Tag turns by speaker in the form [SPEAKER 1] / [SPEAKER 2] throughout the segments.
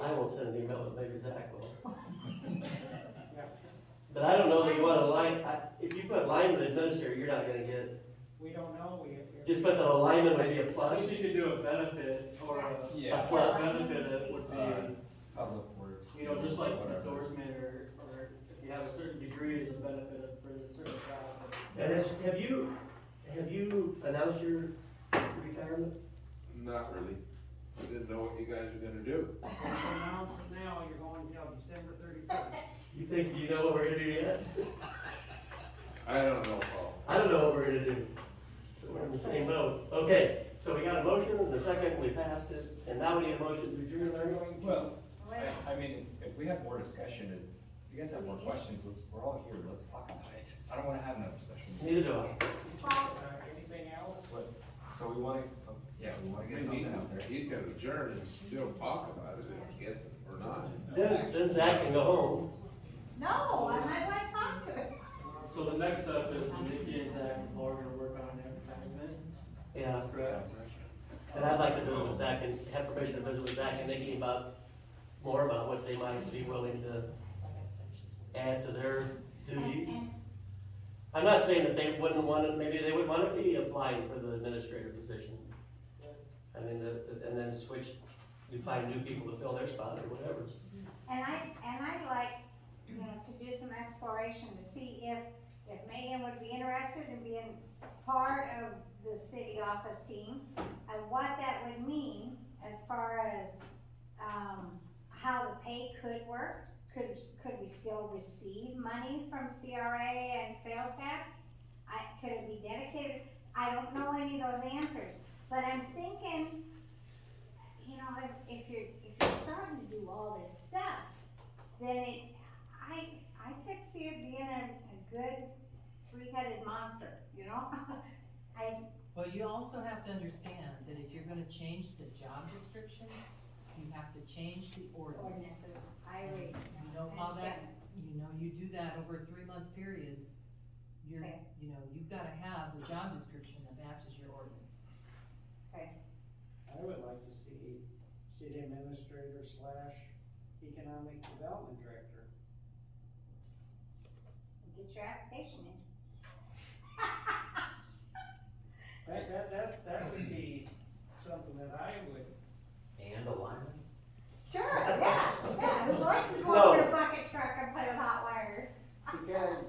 [SPEAKER 1] I will send an email, but maybe Zach will.
[SPEAKER 2] Yeah.
[SPEAKER 1] But I don't know that you want a line, I- if you put lineman administrator, you're not gonna get,
[SPEAKER 2] We don't know, we.
[SPEAKER 1] just put the lineman would be a plus.
[SPEAKER 3] We need to do a benefit or a,
[SPEAKER 1] Yeah.
[SPEAKER 3] or a benefit that would be,
[SPEAKER 4] Uh, Public works.
[SPEAKER 3] Uh, you know, just like
[SPEAKER 4] whatever.
[SPEAKER 3] endorsement or, or if you have a certain degree as a benefit for a certain job.
[SPEAKER 1] And has, have you, have you announced your retirement?
[SPEAKER 5] Not really. I didn't know what you guys were gonna do.
[SPEAKER 2] Announce it now, you're going till December thirty-first.
[SPEAKER 1] You think you know what we're gonna do yet?
[SPEAKER 5] I don't know, Paul.
[SPEAKER 1] I don't know what we're gonna do. So we're in the same boat. Okay, so we got a motion, and the second, we passed it, and now we need a motion to adjourn our meeting?
[SPEAKER 4] Well,
[SPEAKER 6] Well,
[SPEAKER 4] I, I mean, if- if we have more discussion, and if you guys have more questions, let's, we're all here, let's talk about it. I don't wanna have another special meeting.
[SPEAKER 1] Neither do I.
[SPEAKER 2] Uh,
[SPEAKER 6] Paul,
[SPEAKER 2] anything else?
[SPEAKER 4] What, so we wanna, oh, yeah, we wanna get something out there.
[SPEAKER 5] He's gonna adjourn and still talk about it, I guess, or not.
[SPEAKER 1] Then, then Zach can go home.
[SPEAKER 6] no, I might want to talk to him.
[SPEAKER 3] So the next step is Nikki and Zach and Paul are gonna work on advertisement,
[SPEAKER 1] Yeah.
[SPEAKER 3] correct?
[SPEAKER 1] And I'd like to visit with Zach and have permission to visit with Zach and Nikki about, more about what they might be willing to add to their duties. I'm not saying that they wouldn't want to, maybe they would want to be applying for the administrator position. I mean, the- and then switch, you find new people to fill their spot or whatever.
[SPEAKER 6] And I, and I'd like, you know, to do some exploration to see if, if Megan would be interested in being part of the city office team and what that would mean as far as, um, how the pay could work. Could, could we still receive money from CRA and sales tax? I, could it be dedicated? I don't know any of those answers, but I'm thinking you know, as, if you're, if you're starting to do all this stuff, then it, I, I could see it being a, a good three-headed monster, you know? I,
[SPEAKER 7] Well, you also have to understand that if you're gonna change the job description, you have to change the ordinance.
[SPEAKER 6] ordinances, I agree.
[SPEAKER 7] You know how that, you know, you do that over a three-month period, you're,
[SPEAKER 6] Okay.
[SPEAKER 7] you know, you've gotta have the job description that matches your ordinance.
[SPEAKER 2] I would like to see city administrator slash economic development director.
[SPEAKER 6] Get your application in.
[SPEAKER 2] That, that, that, that would be something that I would,
[SPEAKER 1] And alignment?
[SPEAKER 6] Sure, yeah, yeah, who likes to go over to bucket truck and put in hot wires?
[SPEAKER 2] because,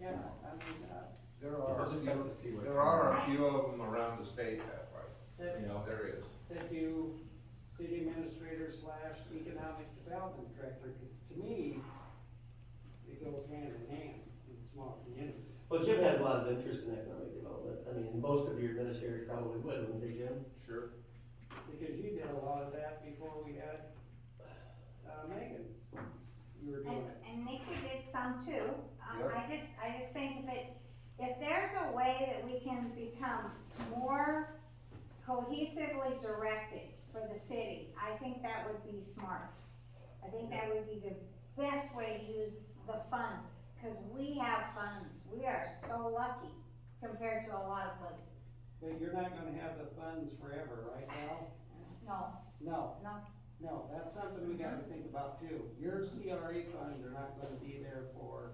[SPEAKER 2] yeah, I mean, uh,
[SPEAKER 5] There are,
[SPEAKER 4] We'll just have to see what.
[SPEAKER 5] there are a few of them around the state that way.
[SPEAKER 2] that,
[SPEAKER 4] You know,
[SPEAKER 5] There is.
[SPEAKER 2] that you, city administrator slash economic development director, 'cause to me, it goes hand in hand in small communities.
[SPEAKER 1] Well, Jim has a lot of interest in economic development. I mean, most of your administrators probably would, wouldn't they, Jim?
[SPEAKER 5] Sure.
[SPEAKER 2] Because you did a lot of that before we had, uh, Megan. You were
[SPEAKER 6] And,
[SPEAKER 2] doing it.
[SPEAKER 6] and Nikki did some too. Um, I just, I just think if it, if there's a way that we can become more cohesively directed for the city, I think that would be smart. I think that would be the best way to use the funds, cause we have funds. We are so lucky compared to a lot of places.
[SPEAKER 2] But you're not gonna have the funds forever, right now?
[SPEAKER 6] No,
[SPEAKER 2] No.
[SPEAKER 6] No.
[SPEAKER 2] No, that's something we gotta think about too. Your CRA funds are not gonna be there for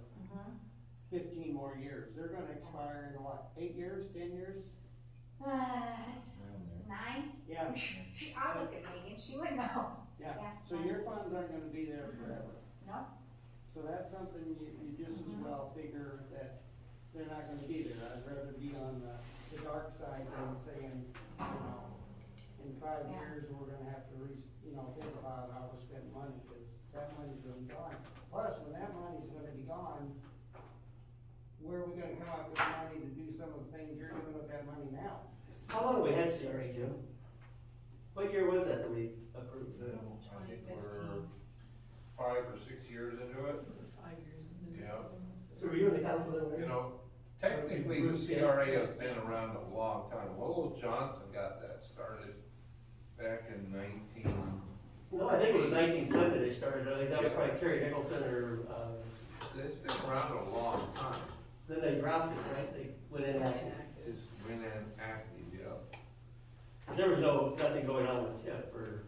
[SPEAKER 2] fifteen more years. They're gonna expire in what, eight years, ten years?
[SPEAKER 6] uh, it's
[SPEAKER 4] around there.
[SPEAKER 6] nine,
[SPEAKER 2] Yeah,
[SPEAKER 6] I'll look at Megan, she would know.
[SPEAKER 2] yeah.
[SPEAKER 6] Yeah.
[SPEAKER 2] So your funds aren't gonna be there forever.
[SPEAKER 6] Mm-hmm. No. Mm-hmm.
[SPEAKER 2] So that's something you, you just as well figure that they're not gonna be there. I'd rather be on the, the dark side than saying, you know, in five
[SPEAKER 6] Yeah.
[SPEAKER 2] years, we're gonna have to re, you know, think about how to spend money, cause that money's gonna be gone. Plus, when that money's gonna be gone, where are we gonna come up with money to do some of the things you're doing with that money now?
[SPEAKER 1] How long have we had CRA, Jim? What year was that that we approved?
[SPEAKER 5] I think we're five or six years into it.
[SPEAKER 7] Five years.
[SPEAKER 5] Yeah.
[SPEAKER 1] So were you in the council then? Mary?
[SPEAKER 5] You know, technically, the CRA has been around a long time. Lowell Johnson got that started back in nineteen
[SPEAKER 1] No, I think it was nineteen seventy they started, I think that was probably Terry Nicholson or, uh,
[SPEAKER 5] It's been around a long time,
[SPEAKER 1] then they dropped it, right? They went in,
[SPEAKER 5] it's been an active, yeah.
[SPEAKER 1] there was no, nothing going on with TIF or